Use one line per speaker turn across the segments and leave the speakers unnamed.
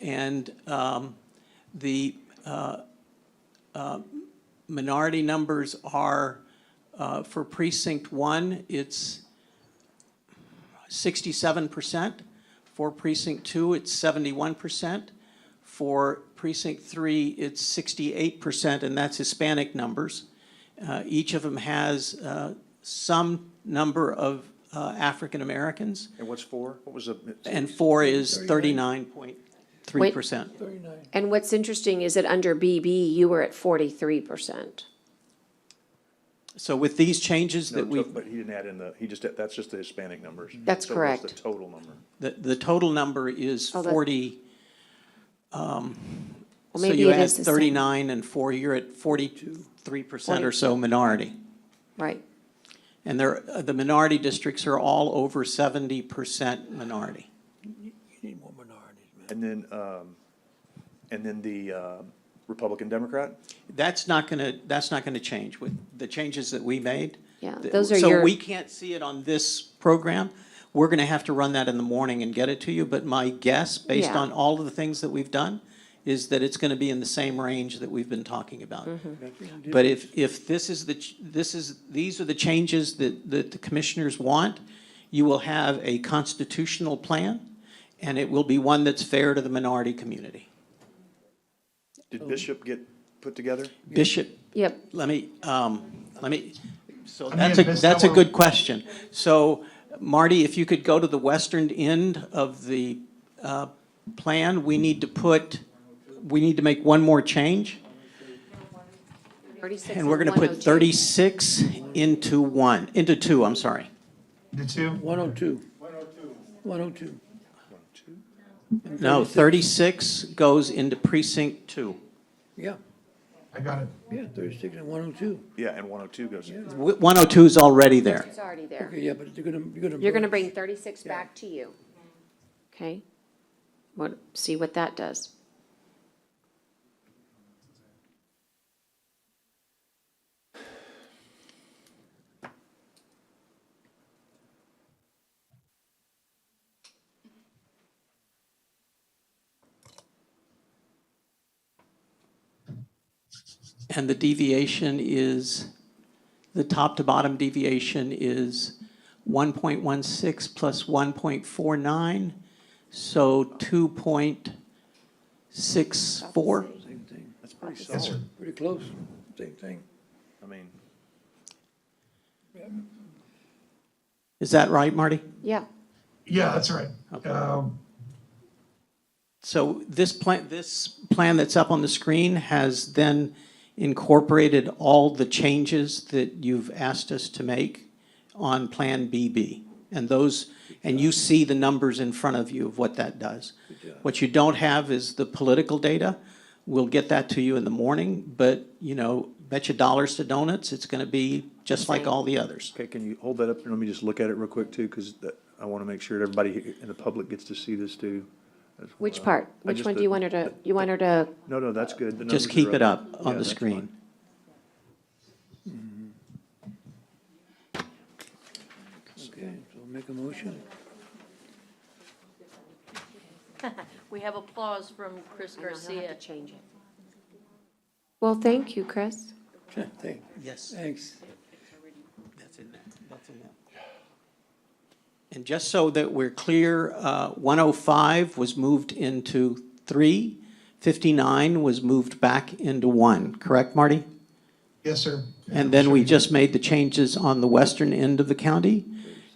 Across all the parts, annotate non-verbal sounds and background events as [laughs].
And um, the uh, uh, minority numbers are, uh, for precinct one, it's sixty-seven percent. For precinct two, it's seventy-one percent. For precinct three, it's sixty-eight percent, and that's Hispanic numbers. Uh, Each of them has uh, some number of uh, African Americans,
And what's four? What was the?
and four is thirty-nine point three percent.
And what's interesting is that under BB, you were at forty-three percent.
So with these changes
No,
that we,
to- But he didn't add in the, he just, that's just the Hispanic numbers.
That's
So what's
correct.
the total number?
the, the total number is
Oh, that-
forty. um,
Well,
So
maybe
you
it
add
is the same.
thirty-nine and four, you're at forty-three percent or
Forty-
so minority.
Right,
And they're, uh, the minority districts are all over seventy percent minority.
Need more minorities, man.
And then, um, and then the, um Republican Democrat?
That's not gonna, that's not gonna change with the changes that we made.
Yeah,
The-
those are
So
your-
we can't see it on this program. We're gonna have to run that in the morning and get it to you, but my guess, based
Yeah.
on all of the things that we've done, is that it's gonna be in the same range that we've been talking about.
Mm-hmm.
But if, if this is the, ch- this is, these are the changes that, that the commissioners want, you will have a constitutional plan, and it will be one that's fair to the minority community.
Did Bishop get put together?
Bishop
yep.
let me, um, let me, so
mean,
that's a,
if it's
that's a
our-
good question. So Marty, if you could go to the western end of the, uh, plan, we need to put, we need to make one more change.
Thirty-six oh
And we're gonna
and
put
102.
thirty-six into one, into two, I'm sorry.
The two?
One oh two. One oh two.
No, thirty-six goes into precinct two.
Yeah,
I got it.
yeah, thirty-six and one oh two.
Yeah, and one oh two goes in.
One oh two is already there.
It's already there.
Okay, yeah, but you're gonna, you're gonna.
You're gonna bring thirty-six back to you. Okay? What, see what that does.
And the deviation is, the top to bottom deviation is 1.16 plus 1.49, so 2.64.
Same thing,
That's pretty
That's-
solid.
pretty close, same thing.
I mean,
Is that right, Marty?
Yeah,
Yeah, that's right. Um,
So this plan, this plan that's up on the screen has then incorporated all the changes that you've asked us to make on Plan BB. And those, and you see the numbers in front of you of what that does. What you don't have is the political data. We'll get that to you in the morning, but, you know, bet you dollars to donuts, it's gonna be just like all the others.
okay, can you hold that up? and Let me just look at it real quick too, because I want to make sure that everybody in the public gets to see this too. That's
which
why-
part?
I
Which
just-
one do
the-
you want her to, you want her to,
No, no, that's good. The numbers
Just
are
keep it up
Yeah,
on the
that's
screen.
fine.
Okay, so make a motion. [laughs]
We have applause from Chris
I know, he'll have
Garcia.
to change it. Well, thank you, Chris.
Thank-
Yes.
Thanks.
That's in there, that's in there. And just so that we're clear, uh, 105 was moved into 3, 59 was moved back into 1, correct, Marty?
yes, sir.
And then we just made the changes on the western end of the county,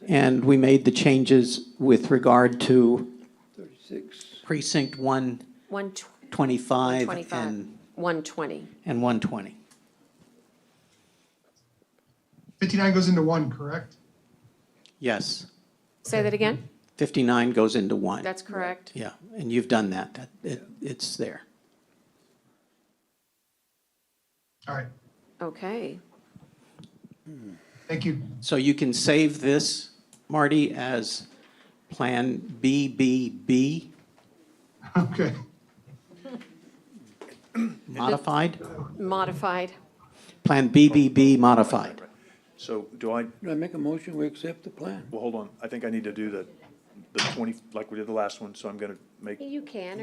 and we made the changes with regard to
Thirty-six,
precinct
One
125
twenty-five,
and,
one twenty.
and 120.
Fifty-nine goes into one, correct?
Yes,
Say that again?
59 goes into 1.
That's correct.
Yeah, and you've done that, that, it- it's there.
All right,
Okay.
thank you. [laughs]
So you can save this, Marty, as Plan BBB
Okay.
modified,
Modified.
Plan BBB modified.
So do I,
do I make a motion, we accept the plan?
well, hold on. I think I need to do the, the twenty, like we did the last one, so I'm going to make
You can,